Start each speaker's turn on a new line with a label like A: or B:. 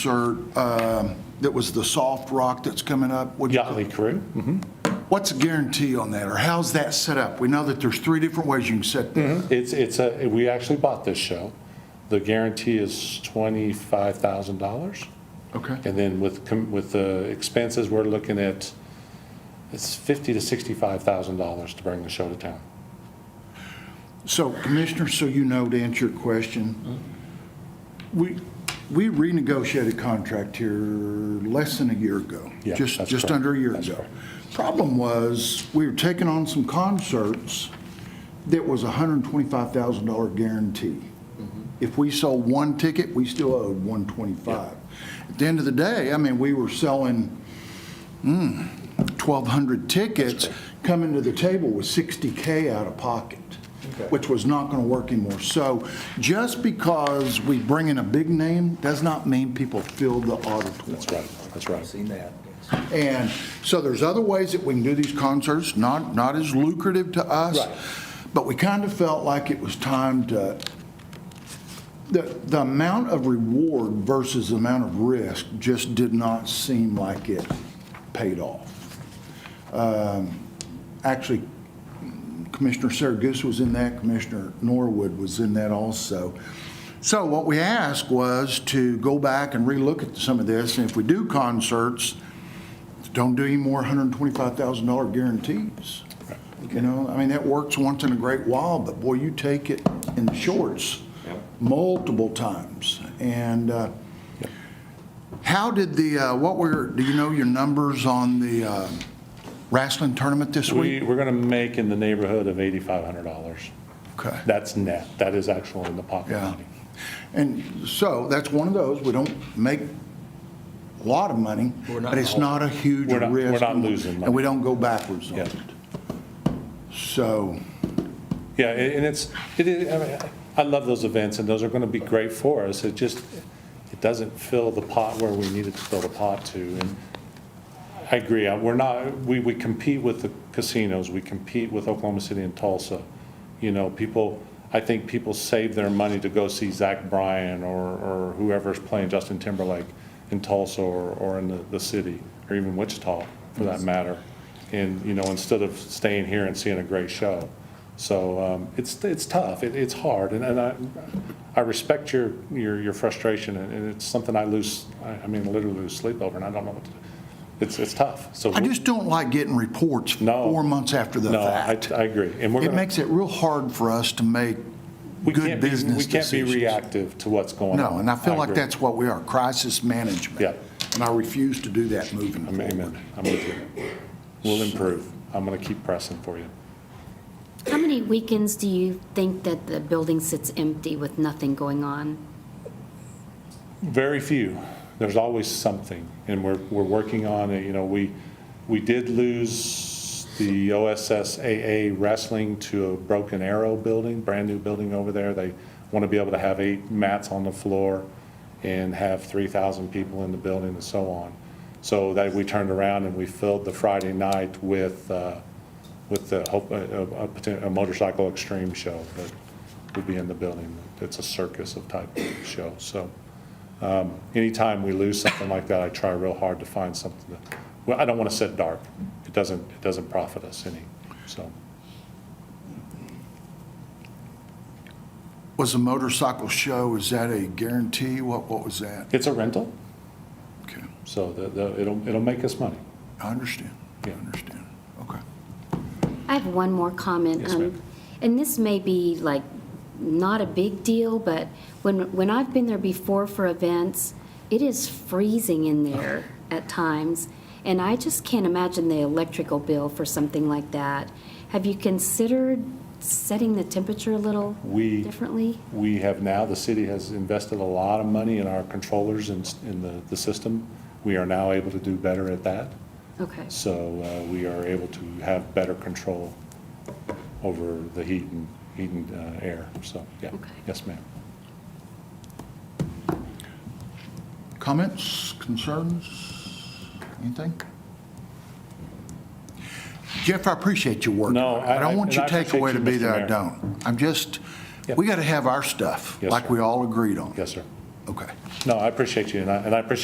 A: Or, um, that was the soft rock that's coming up? What'd you-
B: Yachtly Crew.
A: Mm-hmm. What's the guarantee on that, or how's that set up? We know that there's three different ways you can set that.
B: It's, it's a, we actually bought this show. The guarantee is twenty-five thousand dollars.
A: Okay.
B: And then with, com- with the expenses, we're looking at, it's fifty to sixty-five thousand dollars to bring the show to town.
A: So Commissioner, so you know, to answer your question, we, we renegotiated contract here less than a year ago.
B: Yeah,
A: Just,
B: that's
A: just
B: correct.
A: under a year
B: That's
A: ago.
B: correct.
A: Problem was, we were taking on some concerts that was $125,000 guarantee.
B: Mm-hmm.
A: If we sold one ticket, we still owed 125. At the end of the day, I mean, we were selling, mm, 1,200 tickets, coming to the table with 60K out of pocket, which was not going to work anymore. So just because we bring in a big name does not mean people fill the auditorium.
B: That's right, that's right.
C: Seen that.
A: And so there's other ways that we can do these concerts, not, not as lucrative to us.
B: Right.
A: But we kind of felt like it was time to, the, the amount of reward versus the amount of risk just did not seem like it paid off. Um, Actually, Commissioner Saragus was in that, Commissioner Norwood was in that also. So what we asked was to go back and relook at some of this, and if we do concerts, don't do any more $125,000 guarantees. You know, I mean, that works once in a great while, but boy, you take it in the shorts multiple times. And uh, how did the, uh, what were, do you know your numbers on the uh, wrestling tournament this
B: We,
A: week?
B: we're gonna make in the neighborhood of eighty-five hundred dollars.
A: Okay.
B: That's net, that is actual in the pocket
A: Yeah.
B: money.
A: And so that's one of those, we don't make a lot of money,
C: We're not-
A: but it's not a huge
B: We're
A: risk.
B: not- we're not losing money.
A: And we don't go backwards on
B: Yeah.
A: it. So,
B: Yeah, and and it's, it is, I mean, I love those events, and those are gonna be great for us, it just, it doesn't fill the pot where we need it to fill the pot to, and I agree, I- we're not, we, we compete with the casinos, we compete with Oklahoma City and Tulsa, you know, people, I think people save their money to go see Zach Bryan or, or whoever's playing Justin Timberlake in Tulsa or, or in the, the city, or even Wichita, for that matter, and, you know, instead of staying here and seeing a great show. So um, it's, it's tough, it, it's hard, and, and I, I respect your, your, your frustration, and and it's something I lose, I I mean, literally lose sleep over, and I don't know what to do. It's, it's tough, so.
A: I just don't like getting reports
B: No.
A: four months after the
B: No, I,
A: fact.
B: I agree, and we're
A: It
B: gonna,
A: makes it real hard for us to make
B: we
A: good
B: can't be, we
A: business
B: can't be
A: decisions.
B: reactive to what's going on.
A: No, and I feel like
B: agree.
A: that's what we are, crisis management.
B: Yeah.
A: And I refuse to do that moving forward.
B: Amen, I'm with you. We'll improve, I'm gonna keep pressing for you.
D: How many weekends do you think that the building sits empty with nothing going on?
B: Very few. There's always something, and we're, we're working on it. You know, we, we did lose the OSSAA wrestling to a Broken Arrow building, brand-new building over there. They want to be able to have eight mats on the floor and have 3,000 people in the building and so on. So that, we turned around and we filled the Friday night with, uh, with the, hope- uh, a- a- a poten- a motorcycle extreme show that will be in the building. It's a circus of type show, so anytime we lose something like that, I try real hard to find something that, well, I don't want to set dark. It doesn't, it doesn't profit us any, so.
A: Was the motorcycle show, is that a guarantee? What, what was that?
B: It's a rental,
A: Okay,
B: so the, the, it'll, it'll make us money.
A: I understand. I
B: Yeah.
A: understand. Okay.
D: I have one more comment.
B: Yes,
D: um,
B: ma'am.
D: And this may be like not a big deal, but when, when I've been there before for events, it is freezing in there at times. And I just can't imagine the electrical bill for something like that. Have you considered setting the temperature a little
B: We-
D: differently?
B: We have now, the city has invested a lot of money in our controllers and, s- in the, the system. We are now able to do better at that.
D: Okay.
B: So uh, we are able to have better control over the heat and, heat and uh, air, so, yeah.
D: Okay.
B: Yes, ma'am.
A: Comments, concerns, anything? Jeff, I appreciate your work.
B: No, I-
A: I don't want
B: and
A: your
B: I appreciate
A: takeaway to
B: you,
A: be
B: Mr.
A: that I
B: Mayor.
A: don't. I'm just,
B: Yep.
A: we got to have our stuff,
B: Yes,
A: like
B: sir.
A: we all agreed on.
B: Yes, sir.
A: Okay.
B: No, I appreciate you, and I, and I appreciate